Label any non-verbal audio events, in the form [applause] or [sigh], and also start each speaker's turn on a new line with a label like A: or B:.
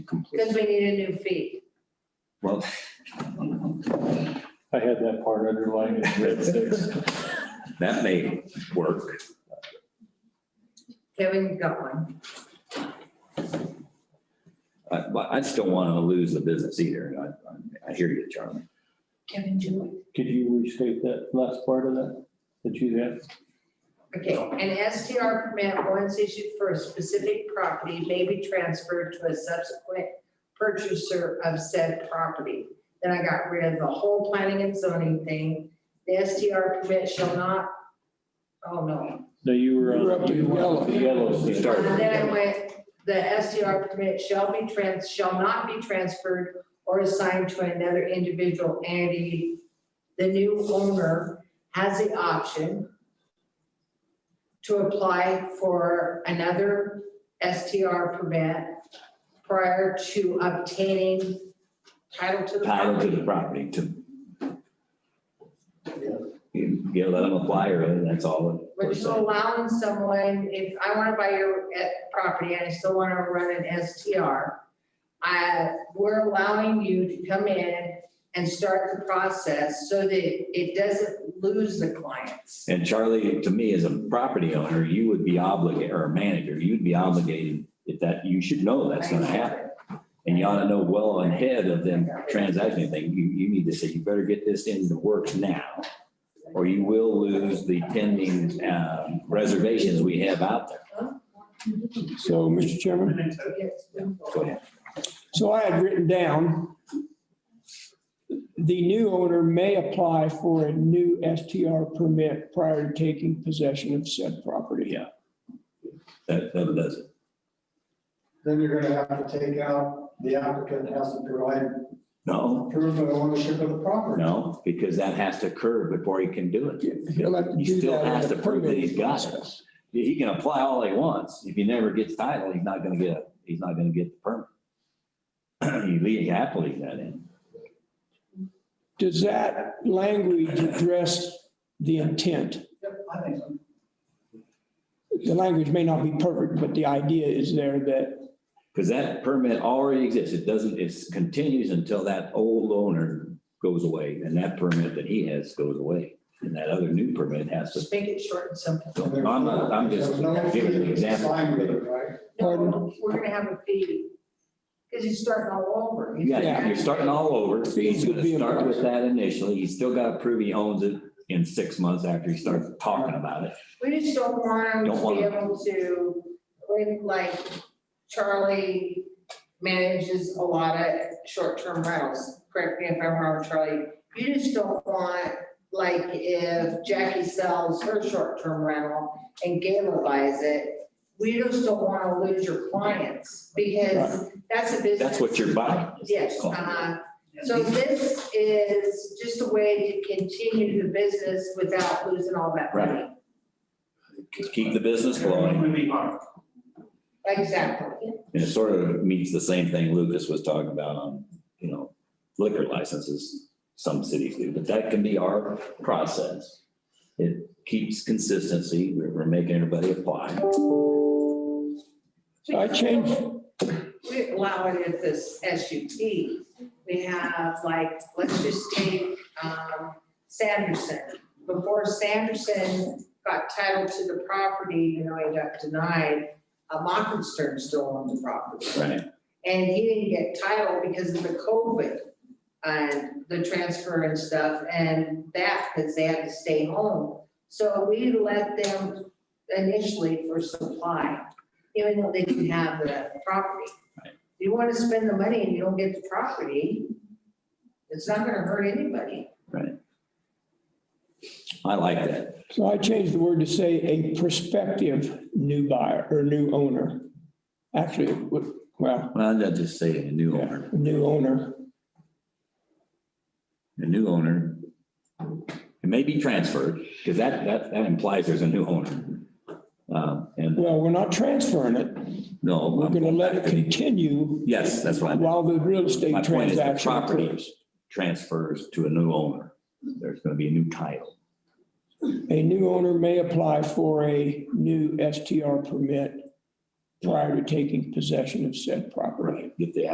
A: Because
B: complete.
A: we need a new fee.
B: Well,
C: I had that
B: [laughs]
C: part underlined. in red.
B: that may work.
A: Kevin, you got one.
B: I- But I just don't want to lose the business either. I- I, I hear you, Charlie.
A: Kevin, do
C: Could you restate that last part of that, that you had?
A: it. Okay, an STR permit once issued for a specific property may be transferred to a subsequent purchaser of said property. Then I got rid of the whole planning and zoning thing. The STR permit shall not, oh no.
C: No, you were
D: You were up
C: on.
D: to
C: you were on
D: yellow.
C: The yellow.
B: You started.
A: And Then I went, the STR permit shall be trans, shall not be transferred or assigned to another individual entity. The new owner has the option to apply for another STR permit prior to obtaining title to the
B: Title to the
A: property.
B: property to. You you let them apply or that's all. it-
A: Which is allowing someone, if I want to buy your eh, property and I still want to run an STR, I, we're allowing you to come in and start the process so that it doesn't lose the clients.
B: And Charlie, to me, as a property owner, you would be obligated, or a manager, you'd be obligated if that, you should know that's gonna happen. And you ought to know well ahead of them transacting thing, you, you need to say, you better get this in the works now. Or you will lose the pending um, reservations we have out there.
D: So, Mr. Chairman,
B: Go ahead.
D: so I had written down, the new owner may apply for a new STR permit prior to taking possession of said property.
B: Yeah. That, that does it.
E: Then you're gonna have to take out, the applicant has to provide
B: No,
E: proof of ownership of the property.
B: no, because that has to occur before he can do it.
D: He'll have to
B: He
D: do
B: still
D: that in
B: has
D: the
B: to prove that he's
D: permitting
B: got it.
D: process.
B: He can apply all he wants. If he never gets title, he's not gonna get, a- he's not gonna get the permit. [clears throat] You leave, you have to leave that in.
D: Does that language address the intent?
E: I think so.
D: The language may not be perfect, but the idea is there that,
B: Because that permit already exists. It doesn't, it continues until that old owner goes away and that permit that he has goes away. And that other new permit has to,
A: Just make it short and simple.
B: so I'm, not- I'm just giving an
E: Sign with
B: example.
E: it, right?
A: No, We're gonna have a fee, because you're starting all over.
B: Yeah, you're starting all over. He's
D: Fees would
B: gonna
D: be
B: start with
D: imposed.
B: that initially. He's still gotta prove he owns it in six months after he starts talking about it.
A: We just don't want them
B: Don't
A: to
B: want
A: be
B: them.
A: able to, when, like Charlie manages a lot of short-term rentals. Correct me if I'm wrong, Charlie. You just don't want, like, if Jackie sells her short-term rental and Gayla buys it, we just don't want to lose your clients because that's a business.
B: That's what you're buying.
A: Yes,
B: Cool.
A: uh-huh. So this is just a way to continue the business without losing all that money.
B: Right. Just keep the business flowing.
A: Exactly.
B: And it sort of meets the same thing Lucas was talking about on, you know, liquor licenses, some cities do, but that can be our process. It keeps consistency, we're, we're making everybody apply.
D: so I changed,
A: We allow it at this SUT. We have like, let's just take um, Sanderson. Before Sanderson got title to the property, even though he got denied, uh, Mockinstern still owned the property.
B: Right.
A: And he didn't get title because of the COVID and the transfer and stuff and that, because they had to stay home. So we let them initially for supply, even though they didn't have the property. You want to spend the money and you don't get the property, it's not gonna hurt anybody.
B: I like that.
D: so I changed the word to say a prospective new buyer or new owner. Actually, it would- well,
B: Well, I'd just say a new
D: yeah,
B: owner,
D: new owner.
B: a new owner. It may be transferred, because that, that, that implies there's a new owner. Uh, and
D: Well, we're not transferring it.
B: no.
D: We're
B: I'm
D: going to
B: going
D: let
B: back
D: it
B: to the-
D: continue
B: Yes, that's what I meant.
D: while the real
B: My
D: estate
B: point is the
D: transaction
B: property.
D: occurs.
B: transfers to a new owner. There's going to be a new title.
D: A new owner may apply for a new STR permit prior to taking possession of said property.
B: Get the